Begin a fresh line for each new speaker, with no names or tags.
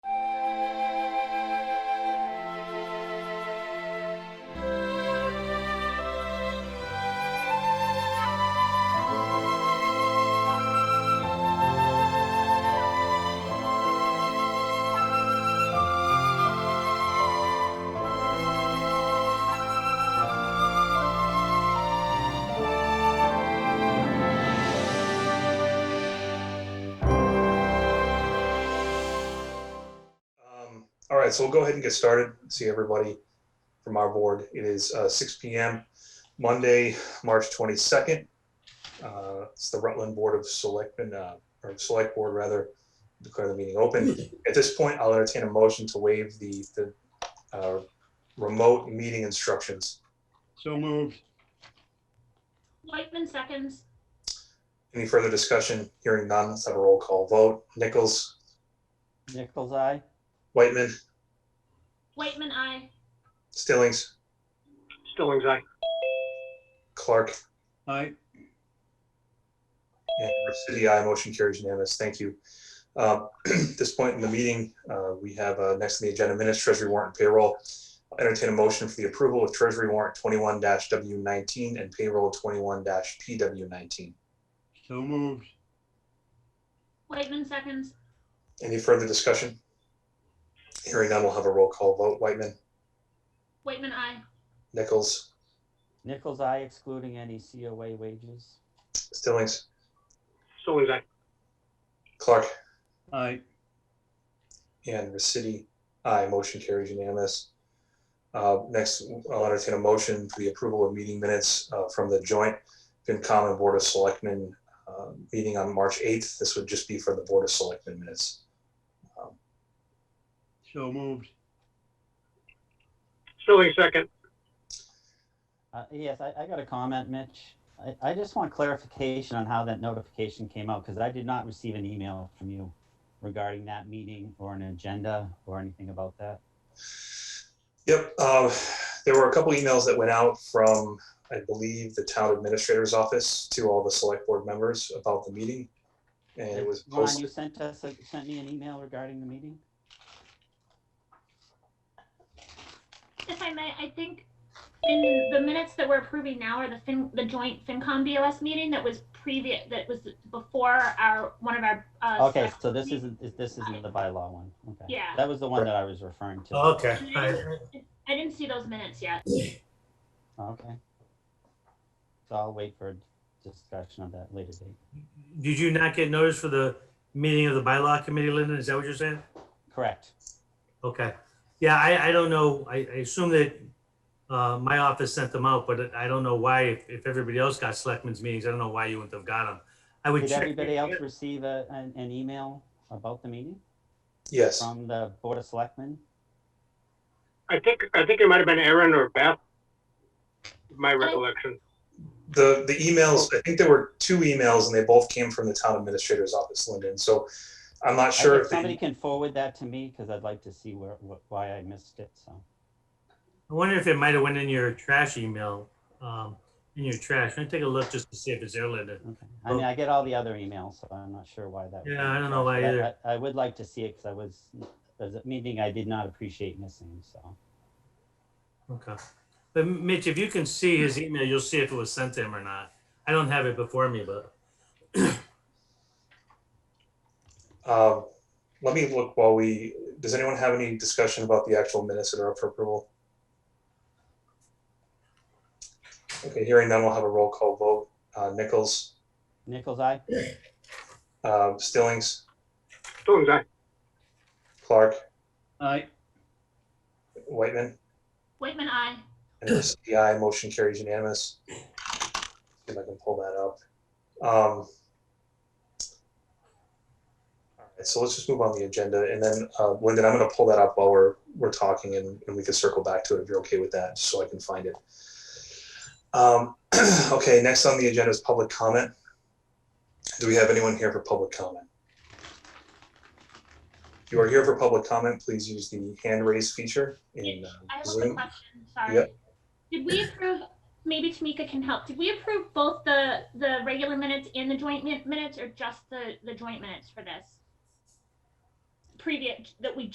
Um, All right, so we'll go ahead and get started. See everybody from our board. It is uh, 6 PM, Monday, March 22nd. Uh, It's the Rutland Board of Selectmen, uh, or Select Board rather, declare the meeting open. At this point, I'll entertain a motion to waive the, the uh, remote meeting instructions.
So moved.
Whitman seconds.
Any further discussion? Hearing none, let's have a roll call vote. Nichols,
Nichols Eye?
Whitman,
Whitman, I.
Stillings,
Stillings, aye.
Clark,
Aye.
And City, I Motion carries unanimous. Thank you. Um, At this point in the meeting, uh, we have uh, next on the agenda minutes, treasury warrant and payroll. I'll Entertain a motion for the approval of treasury warrant twenty-one W nineteen and payroll twenty-one PW nineteen.
So moved.
Whitman seconds.
Any further discussion? Hearing none, we'll have a roll call vote. Whitman,
Whitman, I.
Nichols,
Nichols Eye excluding any COA wages?
Stillings,
Stillings, aye.
Clark,
Aye.
and Resity, aye. Motion carries unanimous. Uh, Next, I'll entertain a motion for the approval of meeting minutes uh, from the joint FinCom and Board of Selectmen uh, meeting on March 8th. This would just be for the Board of Selectmen minutes.
So moved.
Stillings second.
Uh, yes, I, I got a comment, Mitch. I, I just want clarification on how that notification came out, because I did not receive an email from you regarding that meeting or an agenda or anything about that.
Yep, uh, there were a couple emails that went out from, I believe, the town administrator's office to all the select board members about the meeting. And it was
Ron,
posted,
you sent us, a- sent me an email regarding the meeting?
If I may, I think in the minutes that we're approving now are the fin, the joint FinCom BOS meeting that was previous, that was before our, one of our. uh,
Okay,
select-
so this isn't, is- this isn't the bylaw one, okay.
Yeah.
That was the one that I was referring to.
Okay.
I didn't see those minutes yet.
Okay. So I'll wait for a discussion of that later date.
Did you not get notice for the meeting of the bylaw committee, Lyndon? Is that what you're saying?
Correct.
Okay. Yeah, I, I don't know. I, I assume that uh, my office sent them out, but I don't know why, if, if everybody else got selectmen's meetings, I don't know why you wouldn't have got them. I would
Did
check.
everybody else receive a, an, an email about the meeting
yes,
from the Board of Selectmen?
I think I think it might have been Aaron or Beth. My recollection.
the, the emails, I think there were two emails and they both came from the town administrator's office, Lyndon. So I'm not
I-
sure.
If
if they-
somebody can forward that to me, because I'd like to see where, wh- why I missed it, so.
I wonder if it might have went in your trash email, um, in your trash. Let me take a look just to see if it's there, Lyndon.
okay. I mean, I get all the other emails, so I'm not sure why that. would
Yeah,
be
I don't know
the
why
case,
either.
but I I would like to see it, because I was, there's a meeting I did not appreciate missing, so.
Okay. But Mitch, if you can see his email, you'll see if it was sent to him or not. I don't have it before me, but
Um, Let me look while we, does anyone have any discussion about the actual minutes that are up for approval? Okay, hearing none, we'll have a roll call vote. Uh, Nichols,
Nichols, I,
uh, Stillings,
Stillings aye.
Clark,
Aye.
Whitman,
Whitman, I.
and the aye. Motion carries unanimous. See if I can pull that up. Um, all right, So let's just move on the agenda and then, uh, Lyndon, I'm going to pull that up while we're, we're talking and, and we can circle back to it if you're okay with that, just so I can find it. Um, okay, next on the agenda is public comment. Do we have anyone here for public comment? If you are here for public comment, please use the hand raise feature in
Mitch,
uh,
I have a
Zoom.
question, sorry.
Yep.
Did we approve, maybe Tamika can help, did we approve both the, the regular minutes and the joint min- minutes or just the, the joint minutes for this? Previous, that we